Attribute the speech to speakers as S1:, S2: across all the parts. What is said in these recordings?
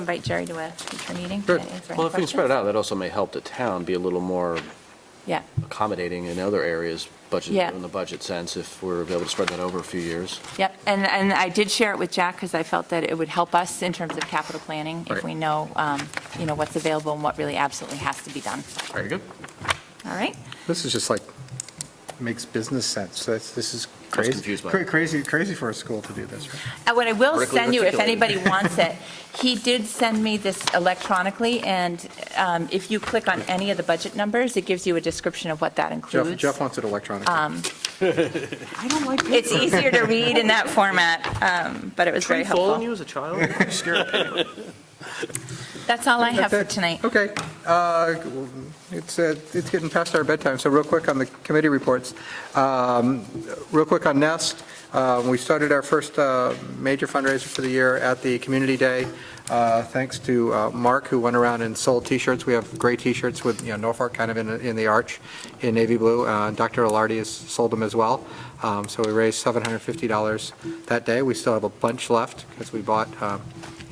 S1: invite Jerry to a future meeting to
S2: Sure.
S1: answer any questions.
S2: Well, if we can spread it out, that also may help the town be a little more
S1: Yeah,
S2: accommodating in other areas, budget,
S1: Yeah.
S2: in the budget sense, if we're able to spread that over a few years.
S1: yep. And, and I did share it with Jack because I felt that it would help us in terms of capital planning if
S2: Right.
S1: we know, um, you know, what's available and what really absolutely has to be done.
S2: Very good.
S1: All right?
S3: This is just like, makes business sense. That's, this is crazy.
S2: confused by
S3: Cra-
S2: it.
S3: Crazy, crazy for a school to do this, right?
S1: And What I will
S2: Vertically
S1: send you, if
S2: articulated.
S1: anybody wants it, he did send me this electronically, and um, if you click on any of the budget numbers, it gives you a description of what that
S3: Jeff,
S1: includes.
S3: Jeff wants it electronic.
S1: I don't like It's easier to read in that format, um, but it was very
S2: Fooling
S1: helpful.
S2: you as a child?
S1: That's all I have for tonight.
S3: Okay. Uh, It's, uh, it's getting past our bedtime, so real quick on the committee reports. Um, Real quick on Nest, uh, we started our first uh, major fundraiser for the year at the Community Day. Uh, Thanks to uh, Mark, who went around and sold T-shirts. We have gray T-shirts with, you know, Norfolk kind of in, in the arch in navy blue. Uh, Dr. Alardi has sold them as well. Um, So we raised $750 that day. We still have a bunch left because we bought, um,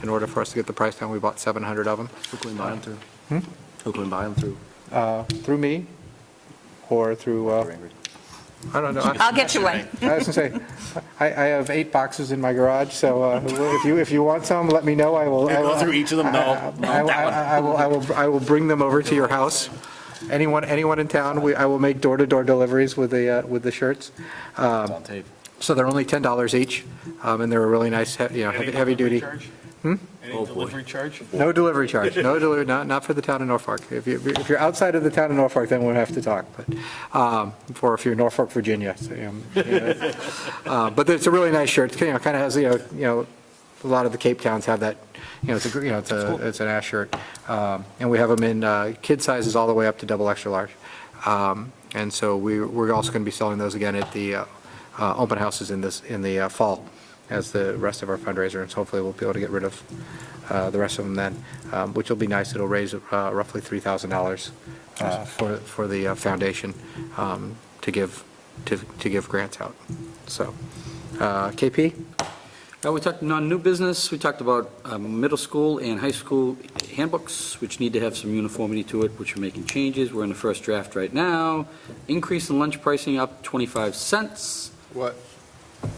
S3: in order for us to get the price down, we bought 700 of them.
S2: Who can we buy them through? Who can we buy them through?
S3: Uh, Through me or through, uh, I don't know. I
S1: I'll get you one.
S3: I was going to say, I I have eight boxes in my garage, so uh, if you, if you want some, let me know. I will. I will-
S4: Go through each of them? No,
S3: I I- I- I will, I will, I will bring them over to your house. Anyone, anyone in town, we- I will make door-to-door deliveries with the, uh, with the shirts.
S2: It's on tape.
S3: So they're only $10 each, um, and they're a really nice, he- you know, heavy- heavy-duty.
S4: Any delivery charge?
S3: No delivery charge, no delivery, not, not for the town of Norfolk. If you, if you're outside of the town of Norfolk, then we'll have to talk, but, um, for if you're Norfolk, Virginia, so, um, you know. Uh, but it's a really nice shirt, you know, kind of has, you know, you know, a lot of the Cape Towns have that, you know, it's a, gr- you know, it's a, it's an ash shirt. Um, and we have them in, uh, kid sizes all the way up to double extra large. Um, and so we, we're also going to be selling those again at the, uh, uh, open houses in this, in the uh, fall as the rest of our fundraiser, and hopefully we'll be able to get rid of uh, the rest of them then, um, which will be nice. It'll raise uh, roughly $3,000 uh, for, for the uh, foundation um, to give, to, to give grants out. So, uh, KP?
S5: Uh, We talked non-new business, we talked about um, middle school and high school handbooks, which need to have some uniformity to it, which we're making changes, we're in the first draft right now. Increase in lunch pricing up 25 cents,
S3: What?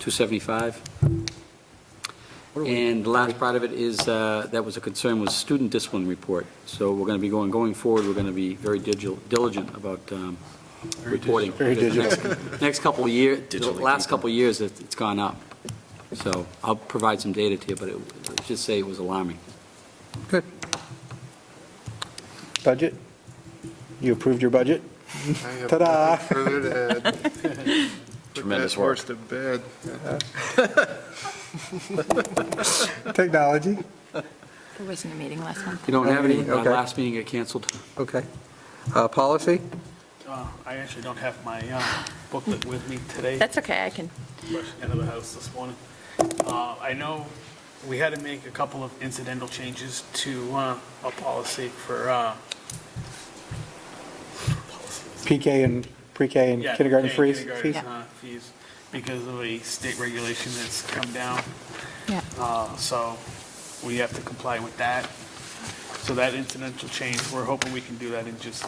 S5: 275. And the last part of it is, uh, that was a concern, was student discipline report. So we're going to be going, going forward, we're going to be very digil- diligent about um, reporting. Very digital. Next couple of years, the
S2: Digitally
S5: last couple of years, it- it's gone up. So I'll provide some data to you, but it- let's just say it was alarming.
S3: Good. Budget? You approved your budget? Ta-da!
S2: Tremendous work.
S3: Technology?
S1: There wasn't a meeting last month.
S5: You don't have any, my
S3: Okay.
S5: last meeting got canceled.
S3: Okay. Uh, Policy?
S4: Uh, I actually don't have my uh, booklet with me today.
S1: That's okay, I can,
S4: Rushed Out of the house this morning. Uh, I know we had to make a couple of incidental changes to uh, a policy for, uh, policies.
S3: PK and, pre-K and
S4: Yeah,
S3: kindergarten
S4: yeah,
S3: freeze?
S4: kindergarten,
S3: fees?
S4: uh, Fees, because of a state regulation that's come down.
S1: yeah.
S4: Uh, So we have to comply with that. So that incidental change, we're hoping we can do that in just,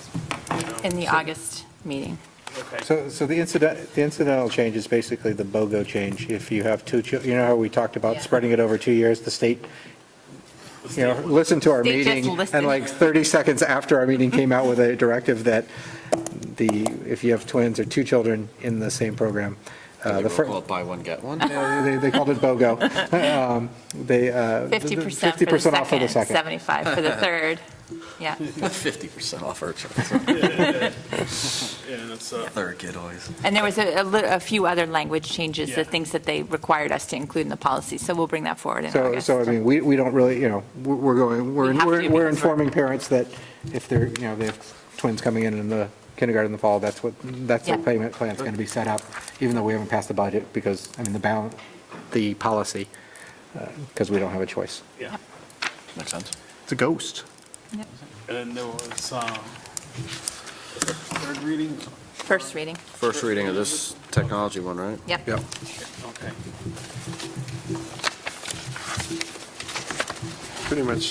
S4: you know.
S1: In the August meeting.
S4: Okay.
S3: So, so the incident, the incidental change is basically the BOGO change. If you have two, chil- you know how we talked
S1: Yeah.
S3: about spreading it over two years, the state, you know, listened to our
S1: They just
S3: meeting,
S1: listened.
S3: and like 30 seconds after our meeting came out with a directive that the, if you have twins or two children in the same program, uh,
S2: They
S3: the
S2: were
S3: first,
S2: called buy one, get one.
S3: they, they called it BOGO. Um, They, uh.
S1: 50%
S3: 50% off
S1: for
S3: for
S1: the second, 75 for the third. Yeah,
S2: 50% off our
S4: Yeah, that's, uh,
S2: third kid always.
S1: and there was a, a li- a few other language changes, the
S4: Yeah.
S1: things that they required us to include in the policy, so we'll bring that forward in
S3: So,
S1: August.
S3: so I mean, we, we don't really, you know, we're- we're going,
S1: We
S3: we're,
S1: have to
S3: we're- we're
S1: because we're-
S3: informing parents that if they're, you know, they have twins coming in in the kindergarten in the fall, that's what, that's the
S1: Yeah.
S3: payment plan's going to be set up, even though we haven't passed the budget, because, I mean, the balance, the policy, because we don't have a choice.
S4: yeah.
S2: Makes sense.
S3: It's a ghost.
S1: Yep.
S4: And then there was, um, third reading?
S1: First reading,
S2: First reading of this technology one, right?
S1: yep.
S3: Yep.
S4: Okay.
S6: pretty much